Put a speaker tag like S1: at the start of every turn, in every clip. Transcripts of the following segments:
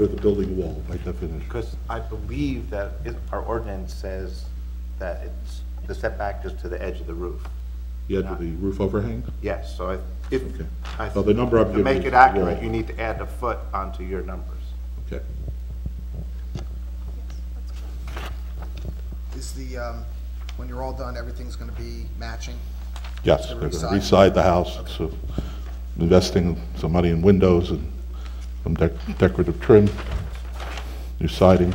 S1: with a building wall by definition.
S2: Because I believe that it- our ordinance says that it's, the setback is to the edge of the roof.
S1: The edge of the roof overhang?
S2: Yes, so I- if,
S1: Okay.
S2: I-
S1: Well, the number I'm
S2: to
S1: giving
S2: make
S1: is
S2: it
S1: the wall.
S2: accurate, you need to add the foot onto your numbers.
S1: Okay.
S3: Is the, um, when you're all done, everything's gonna be matching?
S4: Yes,
S3: The
S4: they're going to
S3: reside.
S4: reside the house, so investing some money in windows and some dec- decorative trim, new siding.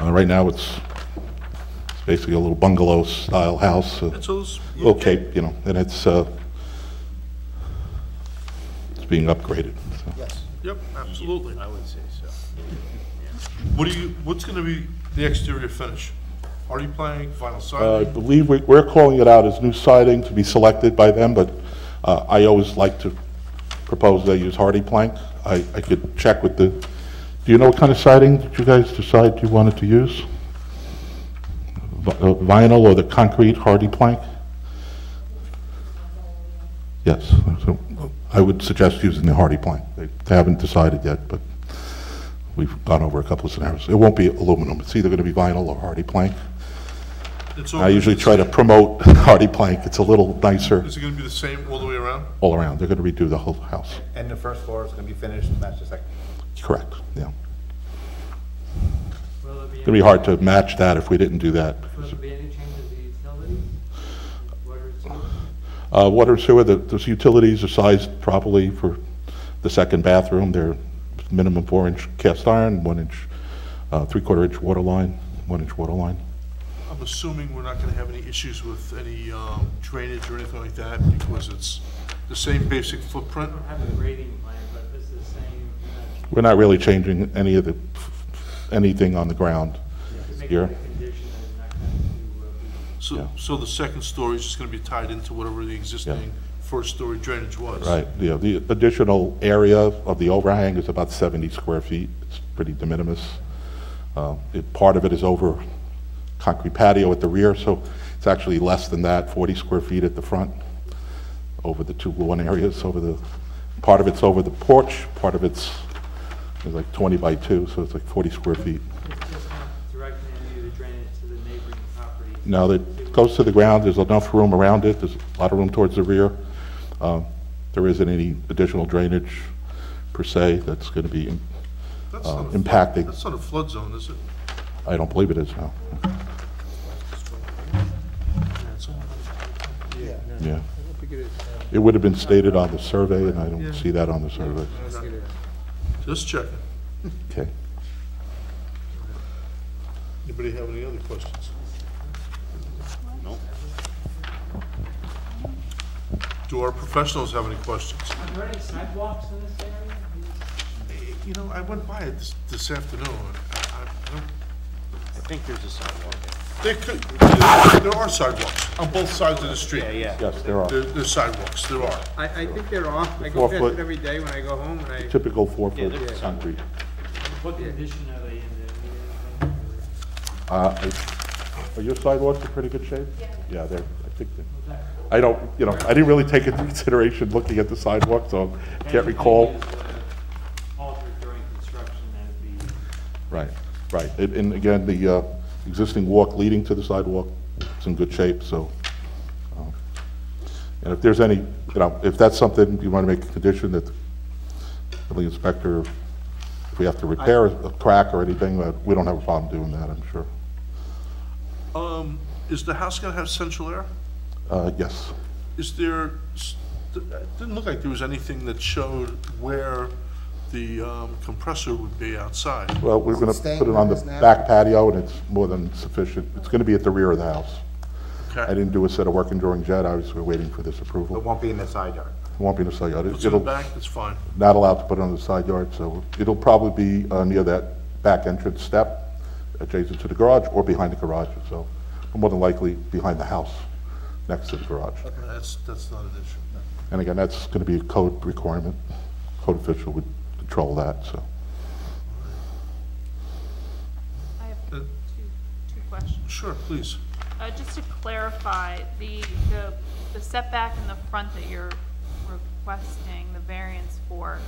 S4: Uh, Right now, it's it's basically a little bungalow-style house, uh,
S5: That's all. s- yeah.
S4: okay, you know, and it's, uh, it's being upgraded, so.
S3: Yes.
S5: Yep, absolutely.
S2: I would say so.
S5: What do you, what's gonna be the exterior finish? Are you planning vinyl
S4: Uh, I
S5: siding?
S4: believe we- we're calling it out as new siding to be selected by them, but uh, I always like to propose they use hardy plank. I I could check with the, do you know what kind of siding did you guys decide you wanted to use? Vi- uh, Vinyl or the concrete hardy plank? Yes, so I would suggest using the hardy plank. They they haven't decided yet, but we've gone over a couple of scenarios. It won't be aluminum, it's either going to be vinyl or hardy plank.
S5: It's
S4: I
S5: all-
S4: usually try to promote hardy plank, it's a little nicer
S5: Is it gonna be the same all the way around?
S4: all around, they're gonna redo the whole house,
S2: And the first floor is going to be finished, and that's the second.
S4: correct, yeah.
S6: Will there be,
S4: It'd be hard to match that if we didn't do that.
S6: any- will there be any changes to utilities? Water, sewer?
S4: Uh, water and sewer, the, those utilities are sized properly for the second bathroom, they're minimum four-inch cast iron, one-inch, uh, three-quarter inch water line, one-inch water line.
S5: I'm assuming we're not gonna have any issues with any um, drainage or anything like that because it's the same basic footprint.
S6: I don't have a grading plan, but this is saying
S4: We're not really changing any of the, anything on the ground
S6: to make it
S4: here.
S6: a condition that it's not going to uh, be
S5: So,
S4: Yeah.
S5: so the second story is just gonna be tied into whatever the existing first story drainage was.
S4: Right, yeah, the additional area of the overhang is about 70 square feet, it's pretty de minimis. Uh, it- Part of it is over concrete patio at the rear, so it's actually less than that, 40 square feet at the front, over the two lawn areas, over the, part of it's over the porch, part of it's, is like 20 by 2, so it's like 40 square feet.
S6: It's just not directing any of the drainage to the neighboring property.
S4: Now, that goes to the ground, there's enough room around it, there's a lot of room towards the rear. Um, There isn't any additional drainage per se that's going to be,
S5: That's
S4: Uh,
S5: not a flood-
S4: impacting.
S5: That's not a flood zone, is it?
S4: I don't believe it is now.
S3: Yeah.
S4: Yeah. It would have been stated on the survey, and I don't see that on the survey.
S5: Just checking.
S4: Okay.
S5: Anybody have any other questions? Nope. Do our professionals have any questions?
S6: Are there any sidewalks in this area?
S5: You know, I went by it this, this afternoon. I, I don't,
S2: I think there's a sidewalk.
S5: there could, there are sidewalks on both sides of the
S2: Uh,
S5: street.
S4: Yes, there are.
S5: There, there's sidewalks, there are.
S7: I, I think they're off, I go
S4: Four
S7: past
S4: foot.
S7: it every day when I go home, and I,
S4: Typical four-foot concrete.
S6: What condition are they in? They're needed, or-
S4: Uh, I- Are your sidewalks in pretty good shape? Yeah. Yeah, they're, I think, they're- I don't, you know, I didn't really take into consideration looking at the sidewalk, so I can't
S6: Anything
S4: recall.
S6: is, uh, Altered during construction, that'd be,
S4: Right, right. And- And again, the uh, existing walk leading to the sidewalk is in good shape, so. um, And if there's any, you know, if that's something you want to make a condition that the building inspector, if we have to repair a crack or anything, uh, we don't have a problem doing that, I'm sure.
S5: Um, is the house gonna have central air?
S4: Uh, Yes.
S5: Is there, s- th- it didn't look like there was anything that showed where the um, compressor would be outside.
S4: Well, we're going to
S3: Staying
S4: put it on the
S3: where it is now?
S4: back patio, and it's more than sufficient. It's going to be at the rear of the house. I
S5: Okay,
S4: didn't do a set of working drawings yet, I was waiting for this
S2: It
S4: approval.
S2: won't be in the side yard.
S4: It Won't be in the side yard. It-
S5: it's in the
S4: it'll-
S5: back, that's fine.
S4: not allowed to put it on the side yard, so it'll probably be uh, near that back entrance step adjacent to the garage or behind the garage itself, but more than likely behind the house next to the garage.
S5: That's, that's not an issue.
S4: And again, that's going to be a code requirement. Code official would control that, so.
S8: I have
S5: Uh,
S8: two, two questions.
S5: Sure, please.
S8: Uh, just to clarify, the, the, the setback in the front that you're requesting the variance for,